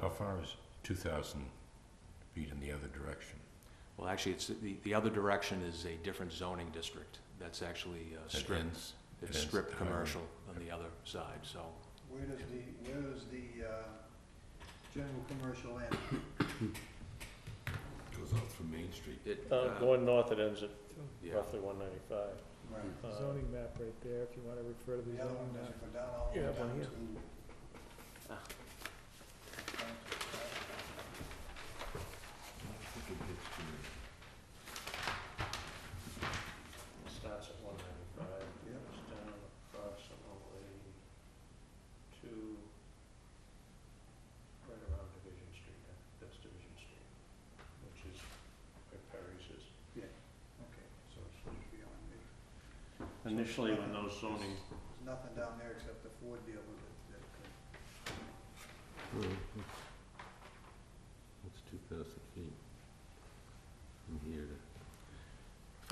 How far is two thousand feet in the other direction? Well, actually, it's, the, the other direction is a different zoning district. That's actually uh, That strip, ends- it's ends strip the highway. commercial on the other side, so. Where does the, where does the, uh, general commercial end? Goes out from Main Street. it, Uh, uh, Going north, it ends at yeah. roughly one ninety-five. Uh, Right. zoning map right there, if you wanna refer to the The other one zoning map. doesn't go down all the Yeah, way but down here. to. Ah. It starts at one ninety-five, Yep. goes down approximately to right around Division Street, I think that's Division Street, which is where Perry's is. Okay, so it's just beyond me. Initially, when those zoning, There's nothing down there except the Ford dealer that, that could. That's two thousand feet from here to.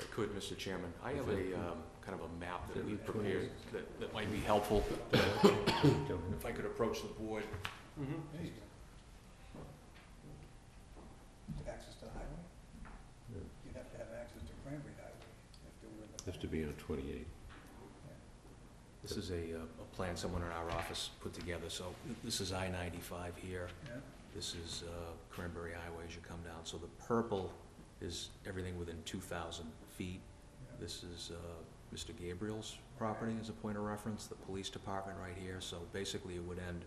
If I could, Mr. Chairman, I have Okay. a, um, kind of a map that Okay. we prepared that, that might be helpful. If I could approach the board, Mm-hmm. There you go. Access to highway? Yeah. You'd have to have access to Cranberry Highway if there were. the- Has to be on twenty-eight. this is a, uh, a plan someone in our office put together, so this is I ninety-five here. Yeah, This is uh, Cranberry Highway as you come down. So the purple is everything within 2,000 feet. yeah. This is uh, Mr. Gabriel's property as a point of reference, the police department right here. So basically, it would end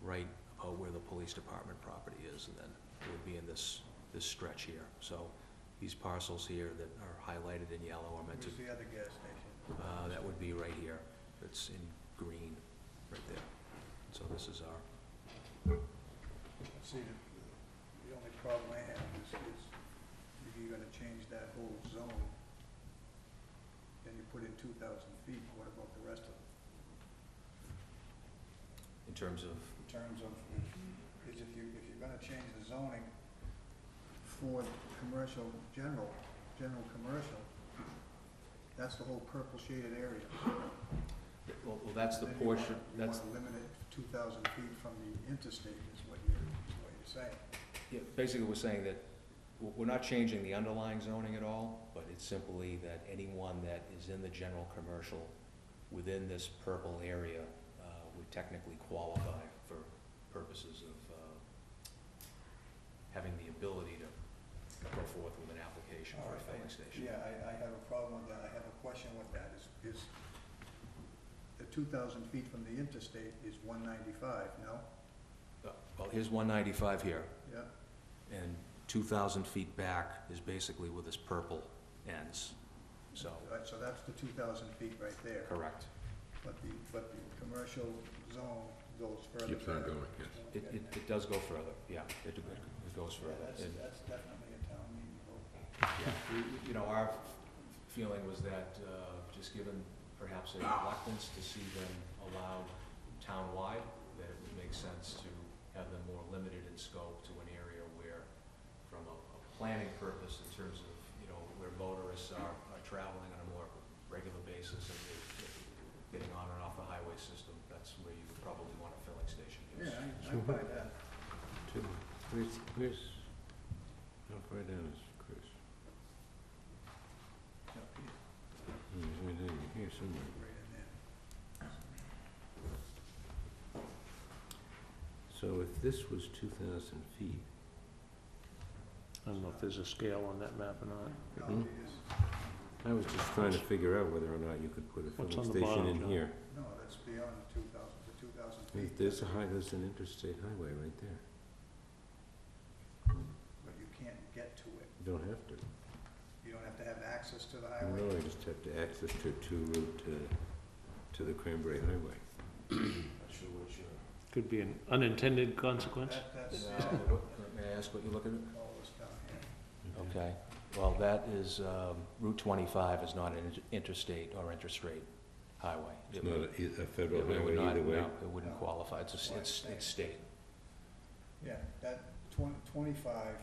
right about where the police department property is, and then it would be in this, this stretch here. So these parcels here that are highlighted in yellow are meant Where's to, the other gas station? uh, that would be right here. It's in green, right there. So this is our See, the, the only problem I have is, is if you're gonna change that whole zone, and you put in two thousand feet, what about the rest of it? in terms of, In terms of, is if you, if you're gonna change the zoning for the commercial, general, general commercial, that's the whole purple shaded area. well, well, that's the Then you wanna- portion, that's, You wanna limit it two thousand feet from the interstate is what you're, is what you're saying. Yeah, basically, we're saying that w- we're not changing the underlying zoning at all, but it's simply that anyone that is in the general commercial within this purple area uh, would technically qualify for purposes of uh, having the ability to go forth with an application for a filling station. Yeah, I, I have a problem with that, I have a question with that, is, is the two thousand feet from the interstate is one ninety-five, no? Uh, Well, here's one ninety-five here, Yeah, and two thousand feet back is basically where this purple ends, so, Right, so that's the two thousand feet right there, correct. but the, but the commercial zone goes further. Keeps on back. going, yes. It, it, it does go further, yeah, it, it goes Yeah, further. that's, And, that's definitely a town meeting vote. yeah, we- You know, our feeling was that, uh, just given perhaps a reluctance to see them allowed townwide, that it would make sense to have them more limited in scope to an area where, from a, a planning purpose in terms of, you know, where motorists are, are traveling on a more regular basis and they- getting on and off the highway system, that's where you would probably want a filling station. yes. Yeah, I, I buy that, Where's, where's, how far down is Chris? up here, Hmm, it's right down here somewhere. right in there. So if this was two thousand feet, I don't know if there's a scale on that map or not. No, Mm-hmm. Mhm. it is, I was just trying to figure out whether or not you could put a What's filling on the station bottom, in John? here. no, that's beyond the two thousand, the two thousand feet. There's a high, there's an interstate highway right there. But you can't get to it, You don't have to. you don't have to have access to the I highway. know, I just have to access to, to route to, to the Cranberry Highway. Not sure what your Could be an unintended consequence. That, that's, uh, Now, yeah, what- May I ask what you're looking at? all this down here. Okay, well, that is, um, Route 25 is not an inter- interstate or interstate highway. It's It not would- a, e- a it federal would highway not- either way. no, It wouldn't qualify, it's, a s- it's it's state. Yeah, that twen- twenty-five,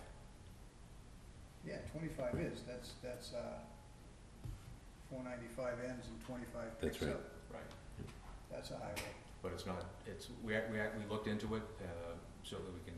yeah, twenty-five is, that's, that's, uh, four ninety-five ends and twenty-five That's picks right. up. Right. That's a highway. But it's not, it's, we, act- we, act- we looked into it, uh, so that we can